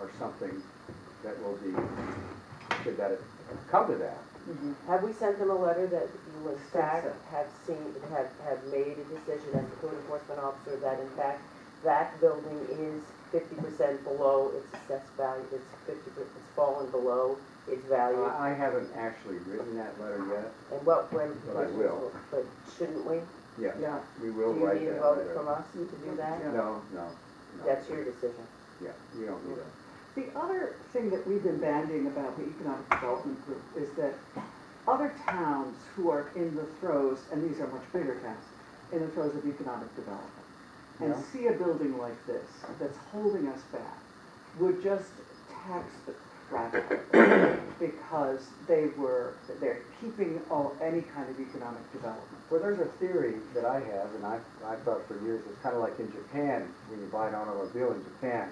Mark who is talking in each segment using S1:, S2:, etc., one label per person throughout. S1: or something that will be, should that come to that.
S2: Mm-hmm.
S3: Have we sent them a letter that you in
S2: think
S3: fact
S2: so.
S3: have seen, have, have made a decision as a code enforcement officer that in fact that building is fifty percent below its assessed value, it's fifty, it's fallen below its value?
S1: I I haven't actually written that letter yet.
S3: And what, when?
S1: But I will.
S3: But shouldn't we?
S1: Yeah,
S2: Yeah,
S1: we
S3: Do
S1: will
S3: you
S1: write
S3: need a
S1: that
S3: vote
S1: letter.
S3: from us to do that?
S2: Mm-hmm. Yeah.
S1: No, no. no.
S3: That's your decision.
S1: Yeah, we don't need a,
S2: the other thing that we've been banding about the Economic Development Group is that other towns who are in the throes, and these are much bigger towns, in the throes of economic development, and
S1: Yeah.
S2: see a building like this that's holding us back, would just tax the crap out of it because they were, they're keeping all, any kind of economic development.
S1: well, there's a theory that I have, and I've, I've thought for years, it's kind of like in Japan, when you buy an automobile in Japan,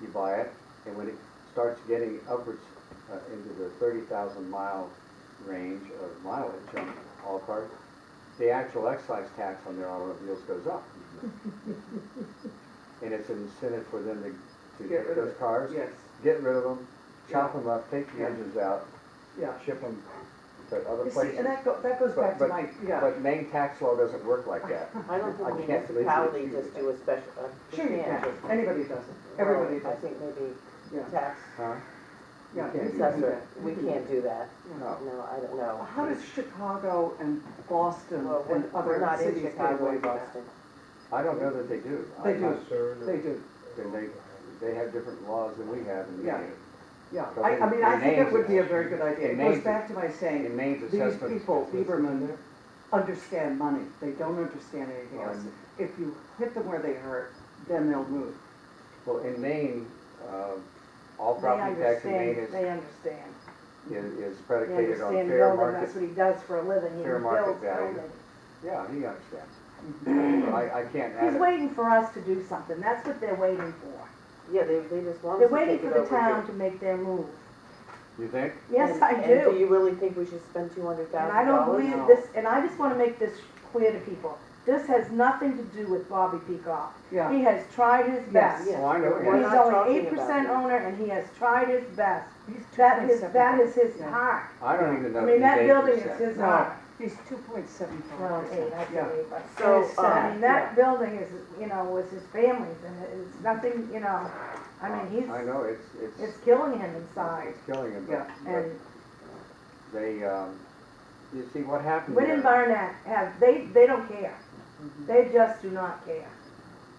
S1: you buy it, and when it starts getting upwards uh, into the thirty thousand mile range of mileage on all cars, the actual excise tax on their automobiles goes up. And it's an incentive for them to, to
S2: Get
S1: get
S2: rid of
S1: those
S2: it.
S1: cars,
S2: Yes,
S1: get rid of them, chop them up, take the
S2: Yeah.
S1: engines out,
S2: yeah.
S1: ship them to other
S2: You see,
S1: places.
S2: and that go, that goes back to
S1: But-
S2: my, yeah.
S1: But main tax law doesn't work like that.
S3: I don't
S1: I
S3: think
S1: can't believe we
S3: municipality
S1: achieved
S3: just do a special, uh, we
S2: Sure you
S3: can't
S2: can,
S3: just-
S2: anybody does it, everybody
S3: Well, I
S2: does it,
S3: think maybe
S2: yeah.
S3: tax
S1: Huh?
S2: Yeah,
S1: You can't do that.
S3: assessor, we can't do that.
S1: No.
S3: No, I don't know.
S2: How does Chicago and Boston
S3: Well,
S2: and
S3: we're- we're
S2: other
S3: not in
S2: cities get
S3: Chicago
S2: away
S3: and
S2: with that?
S3: Boston.
S1: I don't know that they do. I-
S2: They do.
S1: I'm sure
S2: They
S1: that-
S2: do,
S1: Then they, they have different laws than we have in
S2: Yeah.
S1: Maine.
S2: yeah,
S1: But
S2: I, I
S1: in-
S2: mean,
S1: in
S2: I think it
S1: names
S2: would
S1: it
S2: be a
S1: is.
S2: very good idea,
S1: In
S2: it
S1: names
S2: goes
S1: it-
S2: back to my
S1: In
S2: saying,
S1: Maine's
S2: these
S1: assessment.
S2: people, Lieberman, understand money, they don't understand anything
S1: Well,
S2: else.
S1: in-
S2: If you hit them where they hurt, then they'll move.
S1: Well, in Maine, um, all
S4: They
S1: property tax in Maine
S4: understand,
S1: is,
S4: they understand.
S1: is is
S4: They
S1: predicated on
S4: understand
S1: fair
S4: building, that's
S1: market.
S4: what he does for a living, he
S1: fair market
S4: builds
S1: value.
S4: buildings.
S1: Yeah, he understands. I, I can't add
S4: Mm-hmm. He's
S1: it.
S4: waiting for us to do something, that's what they're waiting for.
S3: Yeah, they, they just want
S4: They're
S3: us to
S4: waiting
S3: take it
S4: for
S3: over
S4: the
S3: here.
S4: town to make their move.
S1: You think?
S4: Yes,
S3: And-
S4: I
S3: And do
S4: do.
S3: you really think we should spend two hundred
S4: And
S3: thousand dollars?
S4: I don't believe
S2: No.
S4: this, and I just wanna make this clear to people, this has nothing to do with Bobby Peacock.
S2: Yeah,
S4: He has tried his best.
S3: Yes.
S1: Well, Oh, I know,
S3: We're
S4: He's
S1: yeah.
S3: not
S4: only
S3: talking
S4: eight percent
S3: about
S4: owner and he has tried his best.
S2: he's two
S4: That
S2: point
S4: is,
S2: seven.
S4: that is his
S2: Yeah.
S4: heart.
S1: I don't even know.
S4: I
S1: if
S4: mean,
S1: he's
S4: that building is
S1: 8%.
S4: his
S2: No,
S4: heart.
S2: he's two point seven
S4: Well,
S2: five
S4: eight,
S2: percent,
S4: I
S2: yeah.
S4: believe, but
S3: So,
S4: it's, uh, I
S3: um,
S4: mean, that building is, you know, was his family's and it's nothing, you know, I mean,
S1: I
S4: he's,
S1: know, it's, it's.
S4: it's killing him inside.
S1: It's killing him, but,
S2: Yeah,
S1: but
S4: And
S1: they, um, you see what happened
S4: Wind and
S1: there.
S4: Barnett have, they, they don't care.
S3: Mm-hmm.
S4: They just do not care.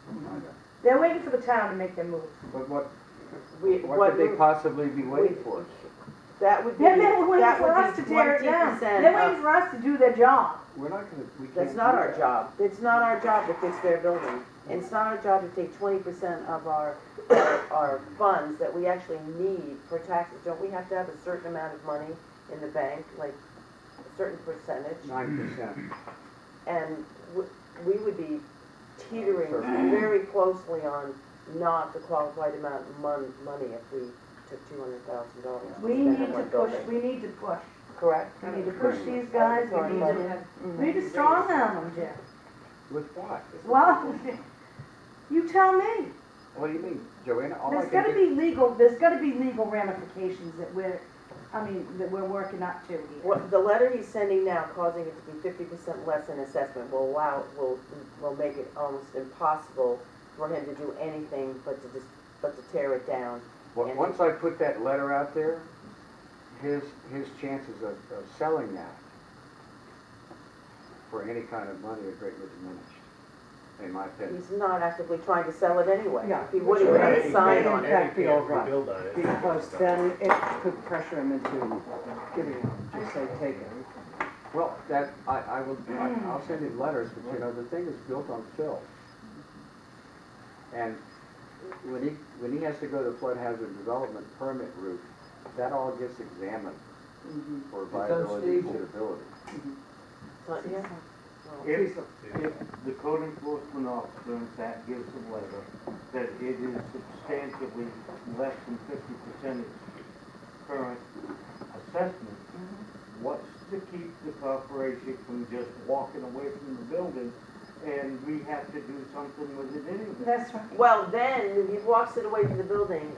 S1: I know.
S4: They're waiting for the town to make their move.
S1: But what,
S3: We,
S1: what
S3: what,
S1: could they
S3: we-
S1: possibly be waiting for?
S3: that would be,
S4: Then they're waiting
S3: that
S4: for us to
S3: would be
S4: tear it
S3: twenty
S4: down. They're
S3: percent
S4: waiting
S3: of,
S4: for us to do their job.
S1: We're not gonna, we can't.
S3: that's not
S1: do
S3: our
S1: that.
S3: job. It's not our job to fix their building. And It's not our job to take twenty percent of our, our our funds that we actually need for taxes. Don't we have to have a certain amount of money in the bank, like a certain percentage?
S1: Nine percent.
S3: and w- we would be teetering
S1: Sure.
S3: very closely on not the qualified amount of mon- money if we took two hundred thousand dollars.
S4: We need to push, we need to push.
S3: Correct?
S4: We need to push these guys, we need to, we need to strong arm them, Jim.
S1: With what?
S4: Well, you tell me.
S1: What do you mean, Joanna? All I
S4: There's
S1: can
S4: gotta
S1: do.
S4: be legal, there's gotta be legal ramifications that we're, I mean, that we're working up to here.
S3: What, the letter he's sending now causing it to be fifty percent less in assessment will allow, will, will make it almost impossible for him to do anything but to just, but to tear it down.
S1: on-
S3: and-
S1: Once I put that letter out there, his, his chances of, of selling that for any kind of money are greatly diminished, in my opinion.
S3: He's not actively trying to sell it anyway.
S2: Yeah.
S3: If he would, he would have a sign on it.
S2: That'd be all right.
S5: Rebuild on it.
S2: Because then it could pressure him into giving it, just say, take it.
S1: Well, that, I, I will, I- I'll send him letters, but you know, the thing is built on fill. And when he, when he has to go the flood hazard development permit route, that all gets examined
S2: Mhm.
S1: for
S6: It's
S1: viability and
S6: unstable.
S1: suitability.
S3: Huh, yeah? Well,
S6: If,
S2: Please,
S6: if the code enforcement officer in fact gives a letter that it is substantially less than fifty percent of current assessment, what's to keep the corporation from just walking away from the building and we have to do something with it anyway?
S4: That's right.
S3: Well, then, if he walks it away from the building